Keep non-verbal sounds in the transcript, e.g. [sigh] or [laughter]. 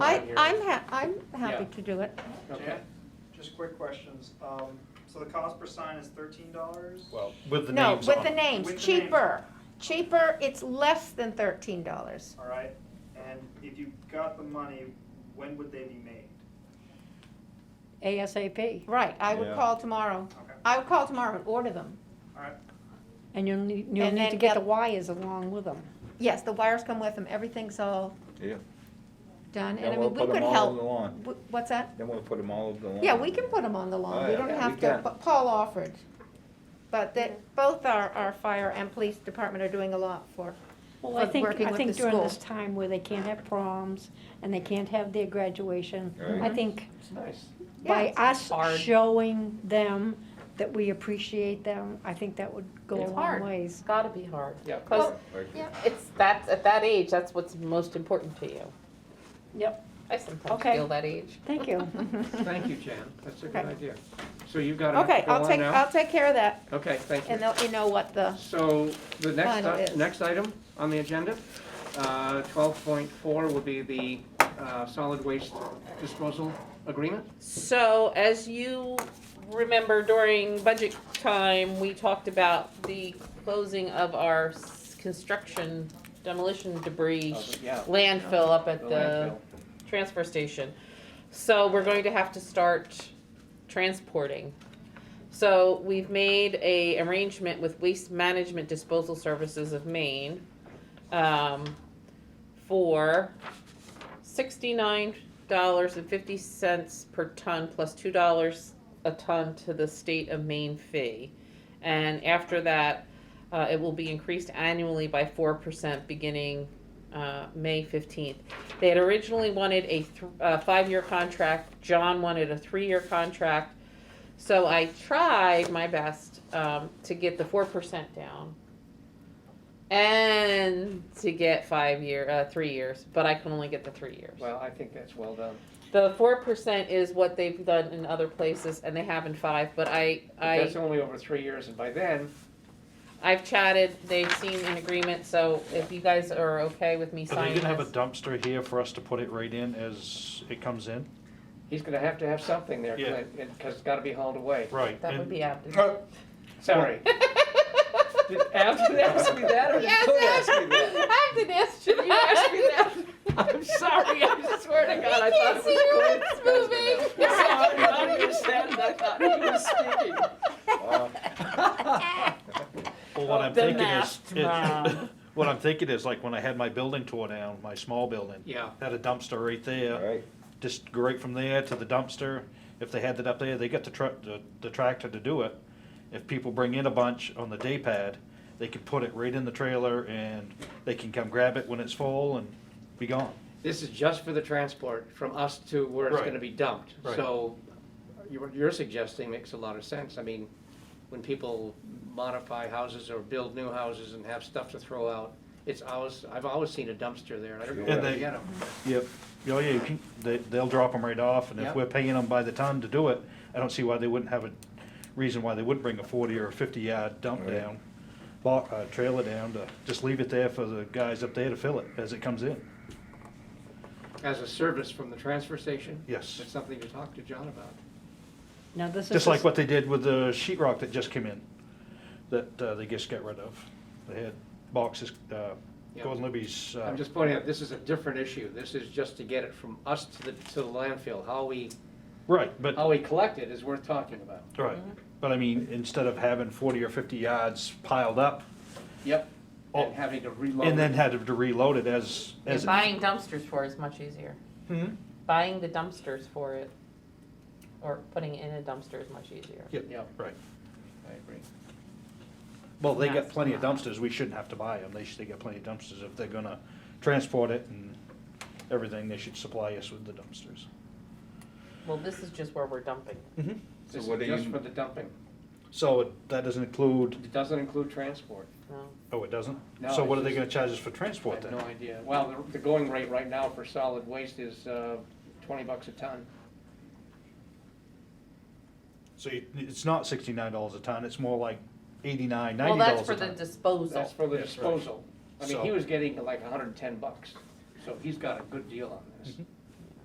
hearing. I'm ha, I'm happy Yeah. to do it. Okay. Jan, just quick questions. Um, so the cost per sign is thirteen dollars? Well, With the No, names with on the it. names, With the names. cheaper, cheaper, it's less than thirteen dollars. All right, and if you got the money, when would they be made? ASAP, Right, I would Yeah. call tomorrow. Okay, I would call tomorrow and order them. all right, and you'll need, you'll And need to then get the get- wires along with them. Yes, the wires come with them, everything's all Yeah. done, and I And we'll mean, we put could them all over the help. lawn. Wh- What's that? Then we'll put them all over the lawn. Yeah, we can put them on the Oh, lawn, we yeah. don't Yeah, have we to, can. but Paul offered. But that, both our, our fire and police department are doing a lot for, Well, I For think, working I with think the during school. this time where they can't have proms and they can't have their graduation, I Right. think It's nice. by yeah, us hard. showing them that we appreciate them, I think that would go a It's long hard. ways. It's gotta be hard. Yeah. Because Like, Yeah. it's, that's, at that age, that's what's most important to you. Yep. I sometimes Okay. feel that age. Thank [laughs] you. thank you, Jan, that's a good Okay. idea. So you got okay, to go I'll on take, now? I'll take care of that, Okay, thank and you. they'll, you know what the, So the next, Final i- is. next item on the agenda, uh, twelve point four will be the uh, solid waste disposal agreement. So as you remember during budget time, we talked about the closing of our s- construction demolition debris Yeah. landfill up at the transfer station. So we're going to have to start transporting. So we've made a arrangement with Waste Management Disposal Services of Maine um, for sixty-nine dollars and fifty cents per ton plus two dollars a ton to the state of Maine fee. And after that, uh, it will be increased annually by four percent beginning uh, May fifteenth. They had originally wanted a th- uh, five-year contract. John wanted a three-year contract. So I tried my best um, to get the four percent down and to get five year, uh, three years, but I can only get the three years. Well, I think that's well done. The four percent is what they've done in other places, and they have in five. But I, But I, That's only over three years, and by then, I've chatted. They've seen an agreement. So if you guys are okay with me Are they signing, gonna have a this- dumpster here for us to put it right in as it comes in? he's going to have to have something there, Yeah. because it's got to be hauled away. Right. that would and- be apt. [laughs] Sorry. Did Abden ask me that, or did Yes, you ask [laughs] me that? [laughs] I did ask you You asked me that. [laughs] that. I'm sorry, I swear to God, I I thought can't it see was your cool. lips [laughs] moving. Sorry, I understand, I thought he [laughs] was speaking. Well, what I'm The thinking is, masked it- man. [laughs] what I'm thinking is like when I had my building tore down, my small building. Yeah. Had a dumpster [laughs] right there, Right, just right from there to the dumpster. If they had it up there, they got the truck, the the tractor to do it. If people bring in a bunch on the day pad, they could put it right in the trailer and they can come grab it when it's full and be gone. This is just for the transport from us to where it's Right. gonna be dumped. Right. So you- what you're suggesting makes a lot of sense. I mean, when people modify houses or build new houses and have stuff to throw out, it's always, I've always seen a dumpster there. I don't know where And they they- get them. Yep. Oh, yeah, you can, they, they'll drop them right off, and Yep. if we're paying them by the ton to do it, I don't see why they wouldn't have a reason why they wouldn't bring a forty or a fifty yard dump Right. down, bo- uh, trailer down to, just leave it there for the guys up there to fill it as it comes in. As a service from the transfer station? Yes. That's something to talk to John about. Now, this is. Just like what they did with the sheet rock that just came in, that, uh, they just got rid of. They had boxes, uh, Yeah. Gordon Libby's, uh, I'm just pointing out, this is a different issue. This is just to get it from us to the, to the landfill. How we, right, but. how we collect it is worth talking about. Right, but I mean, instead of having forty or fifty yards piled up, Yep. Oh. And having to reload. and then had to reload it as, as. And buying dumpsters for it is much easier. Hmm? Buying the dumpsters for it, or putting it in a dumpster is much easier. Yep, Right. I agree. Well, they got That's plenty of not- dumpsters, we shouldn't have to buy them, they should, they got plenty of dumpsters, if they're gonna transport it and everything, they should supply us with the dumpsters. Well, this is just where we're dumping. Mm-hmm. So This what is do just you- for the dumping. So it- that doesn't include, It doesn't include transport. No. oh, it doesn't? No, So it's what are they just- gonna charge us for I transport have then? no idea. Well, the, the going rate right now for solid waste is, uh, twenty bucks a ton. So you- it's not sixty-nine dollars a ton, it's more like eighty-nine, Well, ninety that's dollars for a the ton. disposal. That's for the That's right. disposal. I mean, he So- Mm-hmm. was getting like hundred and ten bucks, so he's got a good deal on this.